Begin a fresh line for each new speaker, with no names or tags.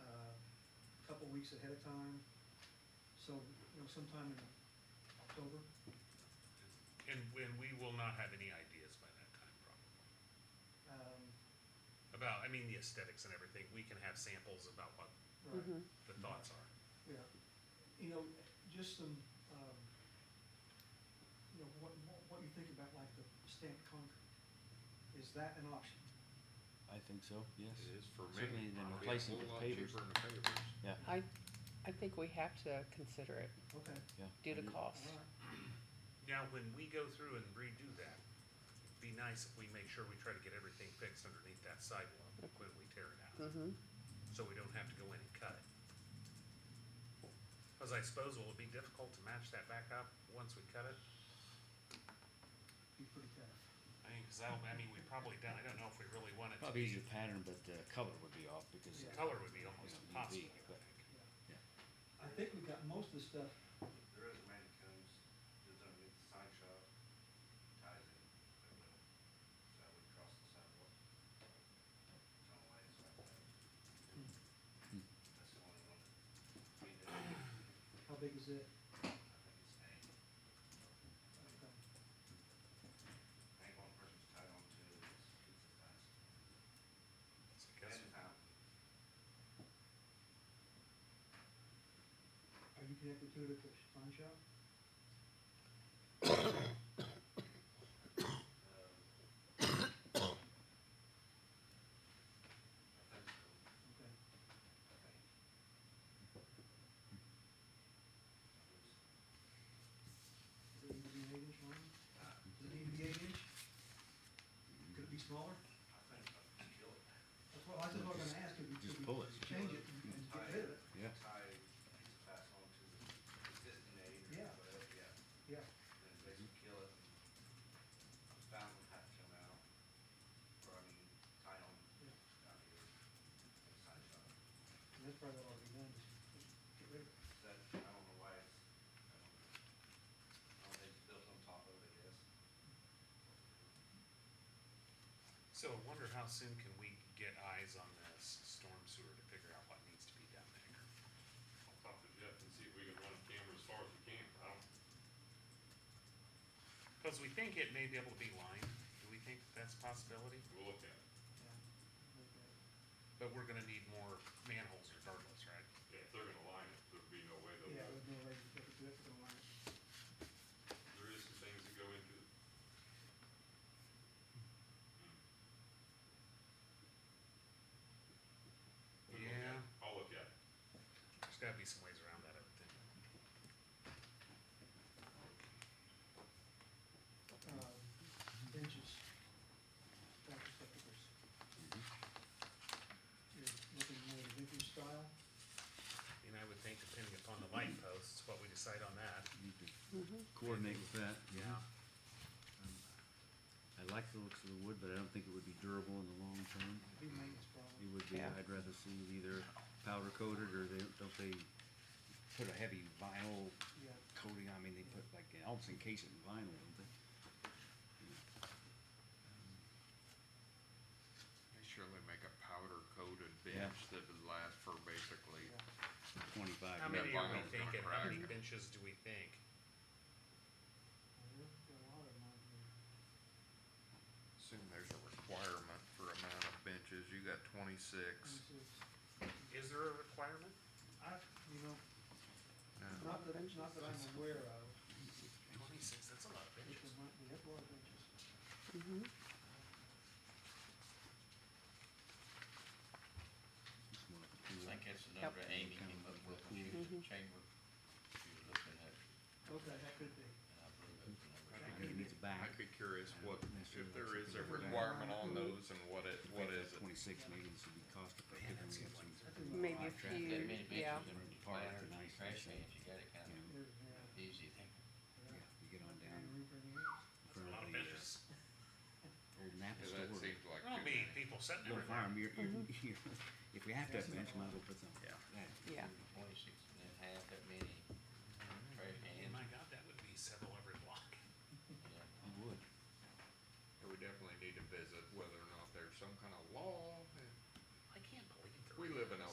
uh, weeks ahead of time. So, you know, sometime in October,
And, and we will not have any ideas by that time probably.
um,
About, I mean, the aesthetics and everything, we can have samples about what
Mm-hmm.
right,
the thoughts are.
yeah. You know, just some, um, you know, what, what- what you think about like the stamped concrete, is that an option?
I think so, yes.
It is for me.
Certainly than
It'll be a
replacing it
whole
with
lot
pavers.
Cheaper than pavers.
Yeah,
I, I think we have to consider it
Okay,
yeah.
due to
I do.
cost.
all right,
Now, when we go through and redo that, it'd be nice if we make sure we try to get everything fixed underneath that sidewalk when we tear it out,
Mm-hmm.
so we don't have to go in and cut it. Cause I suppose it'll be difficult to match that back up once we cut it.
be pretty tough.
I mean, cause that'll, I mean, we probably done, I don't know if we really want it to
Probably
be,
easier pattern, but the color would be off because.
Yeah.
color would be almost
Yeah, UV,
impossible, I
but-
think.
yeah.
Yeah.
I think we got most of the stuff,
There is a man that comes, lives underneath the sign shop, ties it, but no, so we cross the sidewalk. It's on the way, it's like that. That's the only one that we did, I
how big is it?
think it's
Okay.
eight. I think one person's tied on to it, it's, it's a
So
fast.
I
And
Are you
guess
the fountain,
connected to it at the sign shop? Okay.
um. I think so, I think. I believe so.
Does it need to be an eight inch line? Does it need
uh,
to be eight inch? Could it be smaller?
I think I can kill it.
That's what, that's what I'm gonna ask, if we,
Just
could we
pull it.
change it and and get rid of it,
Yeah.
Tie, to pass on to the existing aid or
Yeah.
whatever, yeah,
yeah.
then basically kill it. The Fountain had to come out, or I mean, tie on, out here, and side shot.
And that's probably what I'll be done, just get rid of it.
Is That, I don't know why it's, I don't know. I don't think it's built on top of it, yes.
So I wonder how soon can we get eyes on this storm sewer to figure out what needs to be done there?
I'll talk to Jeff and see if we can run a camera as far as we can, I don't,
Because we think it may be able to be lined, do we think that's a possibility?
we'll look at it.
Yeah. Okay.
But we're gonna need more manholes regardless, right?
Yeah, if they're gonna line it, there'd be no way they'll,
Yeah,
do it.
with no way to get it, that's what I want.
there is some things that go into it. We'll look at it.
Yeah.
I'll look at it.
There's gotta be some ways around that, I would think.
Uh, benches, back receptacles.
Mm-hmm.
You're looking more at vintage style,
And I would think depending upon the light posts, what we decide on that.
Need to
Mm-hmm.
Coordinate with that. I like the looks of the wood, but I don't think it would be durable in the long term.
it'd be maintenance problem.
It would be,
Yeah.
I'd rather see it either powder coated or they, don't they put a heavy vinyl
Yeah,
coating, I mean, they put like, they almost encase it in vinyl, don't they?
They surely make a powder coated
Yeah.
bench that would last for basically,
yeah.
Twenty-five.
How
Yeah,
many are we
vinyl's gonna
thinking, how many
crack.
benches do we think?
Well, there's a lot of them out there.
assume there's a requirement for amount of benches, you got twenty-six.
Twenty-six.
Is there a requirement?
I, you know,
No.
Not that, not that I'm aware of,
Twenty-six, that's a lot of
which
benches.
there might be, that's a lot of benches.
Mm-hmm.
I think that's the
Yep.
number Amy came up with when she was in chamber. She was looking at,
Okay, that could be.
and I believe that's the number.
I think it needs a back.
I'd be curious what, if there is a
Necessarily.
requirement on those and what it, what is it?
Twenty-six, maybe this would be cost effective, and we have some,
Maybe a
Contract.
That
few,
many
yeah.
benches in the
Part of
flat or
the nice
trash
thing.
cans, you got it kind
you know,
of
There's, yeah,
easy thing.
yeah, you get on
yeah. And
down in
roof and roof.
A
front
lot of
of the
benches.
uh, old Napa store.
Yeah, that seems like
There'll
too
be
many.
people sitting
Don't
everywhere.
fire 'em, you're, you're, you're, if we have to have a bench, might as well put some.
Yeah.
Yeah.
Twenty-six and then half that many trash
And
cans,
my god, that would be several every block.
yeah.
I would.
We definitely need to visit whether or not there's some kind of law.
I can't believe there
We
are.
live in a